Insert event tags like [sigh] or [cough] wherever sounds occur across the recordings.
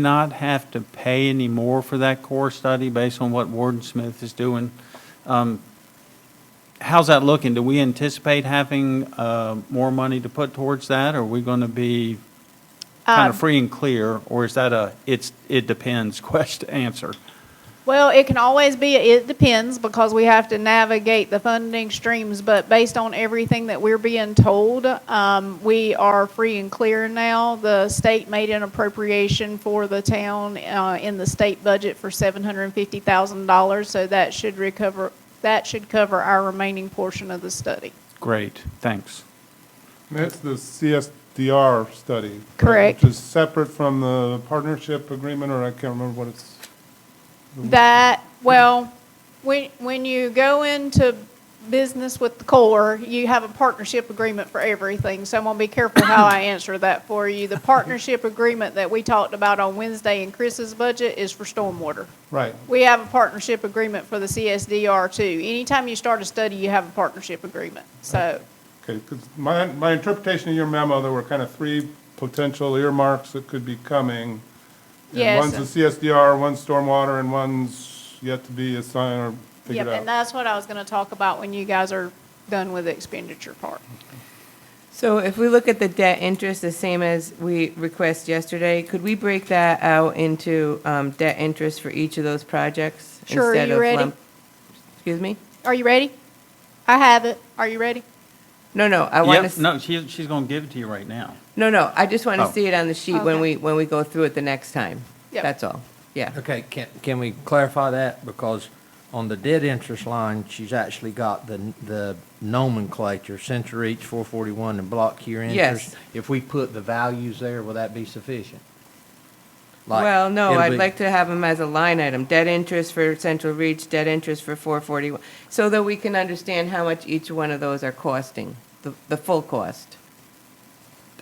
not have to pay any more for that core study based on what Warden Smith is doing? Um, How's that looking? Do we anticipate having uh, more money to put towards that? Are we going to be kind Um, of free and clear? Or is that a, it's, it depends [laughs] question, answer? Well, it can always be, it depends, because we have to navigate the funding streams, but based on everything that we're being told, um, we are free and clear now. The state made an appropriation for the town, uh, in the state budget for seven hundred and fifty thousand dollars, so that should recover, that should cover our remaining portion of the study. Great, thanks. That's the CSDR study. right? Correct. Which is separate from the partnership agreement, or I can't remember what it's, That, well, when, when you go into business with the Corps, you have a partnership agreement for everything, so I'm gonna be careful how I answer that for you. The partnership agreement that we talked about on Wednesday in Chris's budget is for stormwater. right. We have a partnership agreement for the CSDR too. Anytime you start a study, you have a partnership agreement, so. Okay, 'cause my, my interpretation of your memo, there were kind of three potential earmarks that could be coming. and Yes. One's the CSDR, one's stormwater, and one's yet to be assigned or Yep, figured and out. that's what I was gonna talk about when you guys are done with the expenditure part. So if we look at the debt interest, the same as we request yesterday, could we break that out into um, debt interest for each of those projects? Sure, are instead you of ready? lump- Excuse me? Are you ready? I have it. Are you ready? No, no, I want Yep, to, no, she, she's going to give it to you right now. no, no, I just want Oh. to see it on the sheet when Okay. we, when we go through it the next time. Yep. That's all, yeah. Okay, can, can we clarify that? Because on the debt interest line, she's actually got the, the nomenclature, center each, four forty-one, and block here interest. Yes. If we put the values there, will that be sufficient? Like, Well, no, it'll I'd be- like to have them as a line item, debt interest for Central Reach, debt interest for 441, so that we can understand how much each one of those are costing, the, the full cost.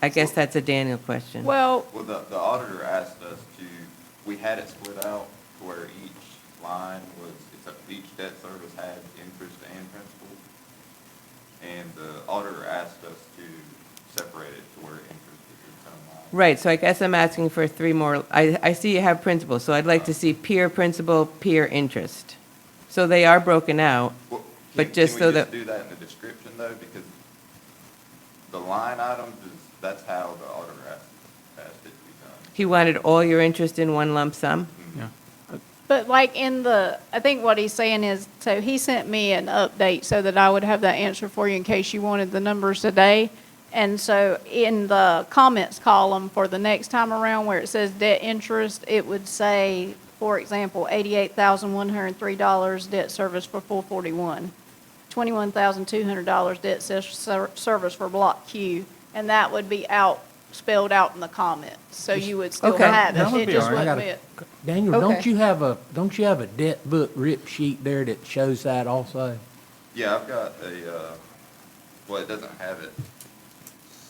I guess that's a Daniel question. Well, Well, the, the auditor asked us to, we had it split out to where each line was, it's a- each debt service had interest and principal. And the auditor asked us to separate it to where interest is its own line. Right, so I guess I'm asking for three more, I, I see you have principal, so I'd like to see peer principal, peer interest. So they are broken out. Well, can- But just so that- Can we just do that in the description though? Because the line items is, that's how the auditor asked, asked it to be done. He wanted all your interest in one lump sum? Yeah. But like in the, I think what he's saying is, so he sent me an update so that I would have that answer for you in case you wanted the numbers today. And so in the comments column for the next time around where it says debt interest, it would say, for example, eighty-eight thousand one hundred and three dollars debt service for four forty-one, twenty-one thousand two hundred dollars debt ser- ser- service for block Q, and that would be out, spelled out in the comments, so you would still Okay. have That would it. It be just all right. I wouldn't gotta- be it. Daniel, don't Okay. you have a, don't you have a debt book rip sheet there that shows that also? Yeah, I've got a, uh, well, it doesn't have it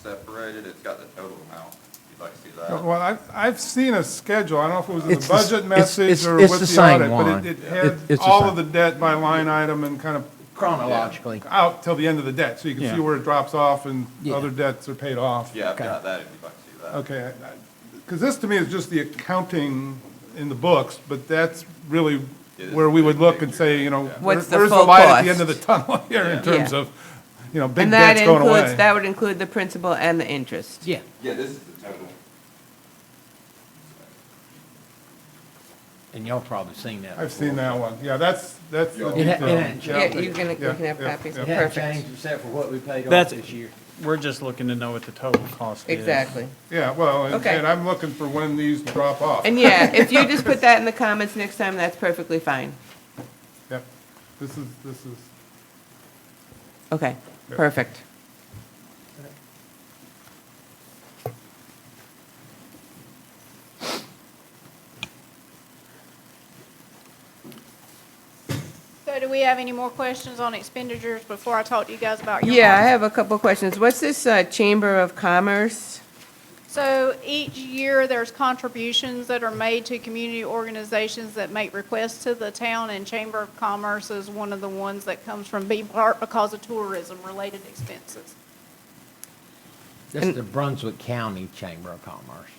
separated, it's got the total amount, if you'd like to see that. Well, I, I've seen a schedule, I don't know if it was in the It's the s- budget it's- message it's- or it's with the the same audit, but it- one. it Yeah. It- had it's the all of same. the debt by line item and kind of Chronologically. out till the end of the debt, so you can Yeah. see where it drops off and Yeah. other debts are paid off. Yeah, I've got that if you'd like to see that. Okay, because this to me is just the accounting in the books, but that's really Yeah, where we would big look and picture, say, you know, yeah. where- What's the where's the full light at the end cost? of the tunnel [laughs] here in Yeah. terms Yeah. of, you know, big And that debts going includes, away. that would include the principal and the interest? Yeah. Yeah, this is the total. And y'all probably seen that. I've seen that one, yeah, that's, that's the It ha- it detail. hasn't Yeah, you can, you Yeah, can have yeah, copies, yeah. It hasn't perfect, changed except for what we paid off That's- this year. We're just looking to know what the total cost is. exactly. Yeah, well, and- Okay. and I'm looking for when these drop off. And yeah, if you just put that in the comments next time, that's perfectly fine. Yep, this is, this is, Okay, perfect. So do we have any more questions on expenditures before I talk to you guys about your? Yeah, I model? have a couple of questions. What's this uh, Chamber of Commerce? So each year, there's contributions that are made to community organizations that make requests to the town, and Chamber of Commerce is one of the ones that comes from B Park because of tourism-related expenses. That's the Brunswick County Chamber of Commerce.